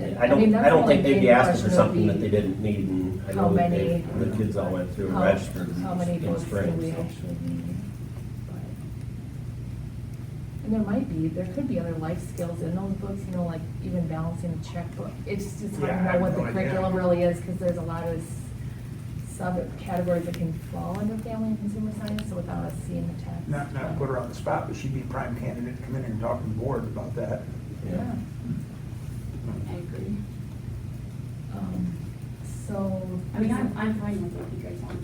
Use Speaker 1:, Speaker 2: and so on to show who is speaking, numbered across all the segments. Speaker 1: I don't,
Speaker 2: mean,
Speaker 1: I don't think
Speaker 2: that's
Speaker 1: they'd be
Speaker 2: the
Speaker 1: asking for
Speaker 2: question
Speaker 1: something
Speaker 2: would
Speaker 1: that they
Speaker 2: be
Speaker 1: didn't need, and I
Speaker 2: how
Speaker 1: know that they,
Speaker 2: many-
Speaker 1: the kids all went through and
Speaker 2: how-
Speaker 1: registered
Speaker 2: how many
Speaker 1: in
Speaker 2: votes do
Speaker 1: spring.
Speaker 2: we
Speaker 1: so.
Speaker 2: actually need? But- And there might be, there could be other life skills in those books, you know, like even balancing a checkbook. It's just hard
Speaker 3: Yeah, I
Speaker 2: to know
Speaker 3: have
Speaker 2: what the
Speaker 3: no idea.
Speaker 2: curriculum really is, because there's a lot of s- subcategories that can fall under family and consumer science, so without us seeing the text.
Speaker 3: Not, not to put her on the spot, but she'd be prime candidate to come in here and talk to the board about that.
Speaker 1: Yeah.
Speaker 2: Yeah.
Speaker 4: I agree.
Speaker 2: Um, So.
Speaker 4: I mean, I'm, I'm fine with what you guys want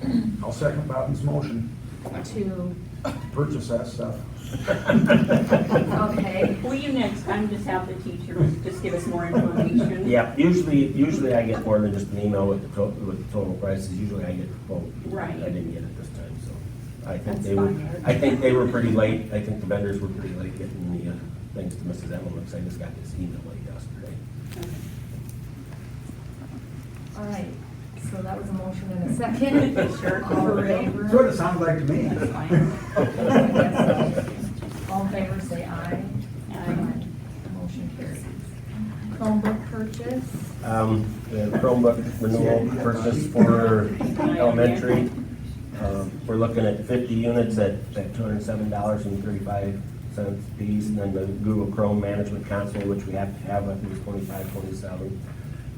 Speaker 4: to do, I just.
Speaker 3: I'll second Bobby's motion,
Speaker 2: To,
Speaker 3: purchase that stuff.
Speaker 2: okay.
Speaker 4: Will you next time just have the teachers just give us more information?
Speaker 1: Yeah, usually, usually I get more than just an email with the to, with the total prices, usually I get the quote.
Speaker 4: Right.
Speaker 1: I didn't get it this time, so I think
Speaker 4: That's
Speaker 1: they were,
Speaker 4: fine.
Speaker 1: I think they were pretty late, I think the vendors were pretty late getting the, uh, things to Mrs. Emmett, I just got this email late yesterday.
Speaker 2: All right, so that was a motion and a second.
Speaker 4: Sure.
Speaker 2: All in favor?
Speaker 3: Sort of sounds like to me.
Speaker 4: That's fine.
Speaker 2: All in favor, say aye.
Speaker 4: Aye.
Speaker 2: Motion carries. Chromebook purchase,
Speaker 1: Um, the Chromebook renewal purchase for elementary. Um, We're looking at fifty units at, at two hundred and seven dollars and thirty-five cents piece, and then the Google Chrome Management Console, which we have to have, I think is twenty-five, twenty-seven.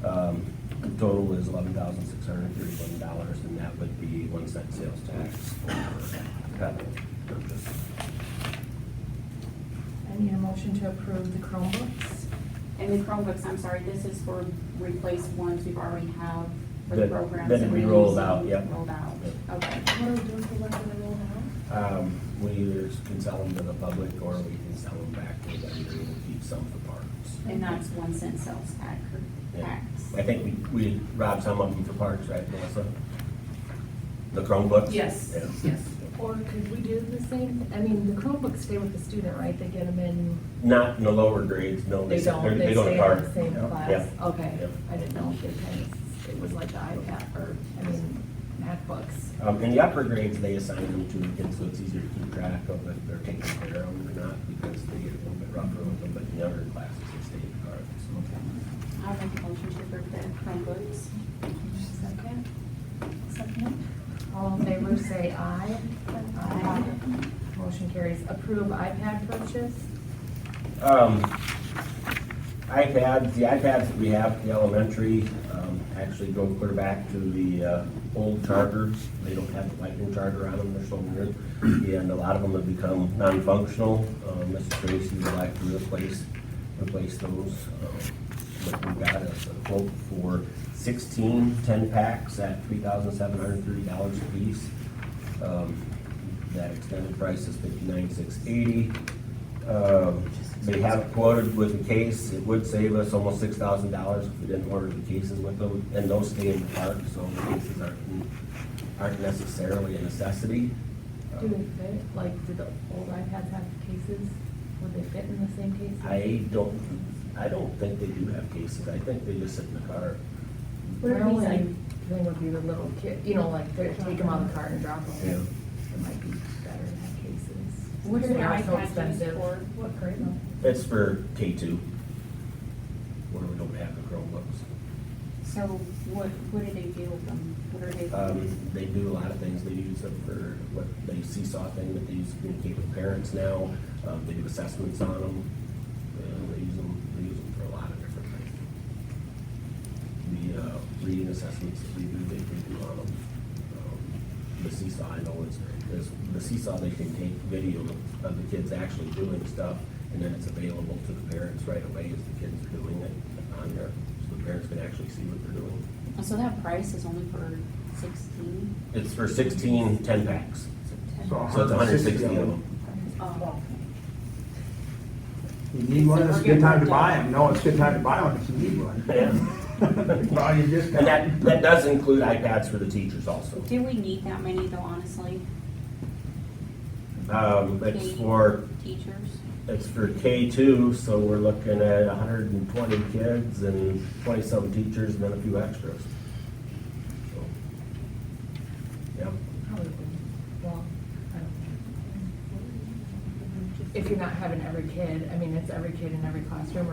Speaker 1: Um, The total is eleven thousand six hundred and thirty-one dollars, and that would be one cent sales tax for that purchase.
Speaker 2: I need a motion to approve the Chromebooks.
Speaker 4: And the Chromebooks, I'm sorry, this is for replace ones we've already have for the
Speaker 1: That-
Speaker 4: programs.
Speaker 1: that we
Speaker 4: we're
Speaker 1: rolled
Speaker 4: using,
Speaker 1: out, yep.
Speaker 4: Rolled out, okay.
Speaker 2: What are we doing for what we rolled out?
Speaker 1: Um, We either can sell them to the public, or we can sell them back to the vendor and keep some for parts.
Speaker 4: And that's one cent sales tax,
Speaker 1: Yeah.
Speaker 4: tax.
Speaker 1: I think we, we robbed some of them for parts, right, Melissa? The Chromebooks?
Speaker 4: Yes,
Speaker 1: Yeah.
Speaker 4: yes.
Speaker 2: Or could we do the same, I mean, the Chromebooks stay with the student, right? They get them in,
Speaker 1: Not in the lower grades, no, they,
Speaker 2: they don't,
Speaker 1: they're-
Speaker 2: they
Speaker 1: they go
Speaker 2: stay in
Speaker 1: to
Speaker 2: the
Speaker 1: park.
Speaker 2: same
Speaker 3: Yeah.
Speaker 2: class?
Speaker 1: Yeah. Yeah.
Speaker 2: Okay, I didn't know if they kind of, it was like the iPad or, I mean, MacBooks.
Speaker 1: Um, in the upper grades, they assign them to the kids, so it's easier to keep track of if they're taking care of them or not, because they get a little bit rougher with them, but in the other classes, they stay in the car.
Speaker 4: I'll make a motion to approve the Chromebooks.
Speaker 2: Second? Second. All in favor, say aye. Aye. Motion carries. Approve iPad purchase?
Speaker 1: Um, iPads, the iPads that we have at the elementary, um, actually go clear back to the, uh, old chargers. They don't have the lightning charger on them, they're so weird. And a lot of them have become non-functional. Um, Mrs. Tracy would like to replace, replace those. Um, But we got a a quote for 16 10 packs at three thousand seven hundred thirty dollars a piece. Um, That extended price is fifty-nine six eighty. Um, They have quoted with the case, it would save us almost six thousand dollars if we didn't order the cases with them, and those stay in the park, so the cases aren't, aren't necessarily a necessity.
Speaker 2: Do
Speaker 1: Um,
Speaker 2: they fit? Like, do the old iPads have cases? Would they fit in the same cases?
Speaker 1: I don't, I don't think they do have cases, I think they just sit in the car.
Speaker 2: Where
Speaker 4: Where are these
Speaker 2: only
Speaker 4: at?
Speaker 2: thing would be the little kid, you know, like, they take them out of the cart and drop them. It might be better to have cases.
Speaker 4: What are
Speaker 2: They
Speaker 4: the
Speaker 2: are so
Speaker 4: iPads used
Speaker 2: expensive.
Speaker 4: for?
Speaker 2: What curriculum?
Speaker 1: It's for K two, where we don't have the Chromebooks.
Speaker 4: So what, what do they do with them? What are they?
Speaker 1: Um, they do a lot of things, they use them for what, they seesaw thing that they use to communicate with parents now, um, they do assessments on them. Uh, they use them, they use them for a lot of different things. The, uh, reading assessments that we do, they can do on them. Um, The seesaw, I know is, is, the seesaw, they can take video of the kids actually doing stuff, and then it's available to the parents right away as the kids are doing it on there, so the parents can actually see what they're doing.
Speaker 4: So that price is only for sixteen?
Speaker 1: It's for 16 10 packs, so it's hundred and sixty of them.
Speaker 4: Oh,
Speaker 3: You need one, it's a good time to buy them. No, it's a good time to buy one if you need one.
Speaker 1: Yeah.
Speaker 3: Buy your
Speaker 1: And
Speaker 3: discount.
Speaker 1: that, that does include iPads for the teachers also.
Speaker 4: do we need that many though, honestly?
Speaker 1: Um, it's for,
Speaker 4: Teachers?
Speaker 1: it's for K two, so we're looking at hundred and twenty kids and twenty-some teachers and then a few extras. So, Yeah,
Speaker 2: Probably, wouldn't. well, I don't know. If you're not having every kid, I mean, it's every kid in every classroom,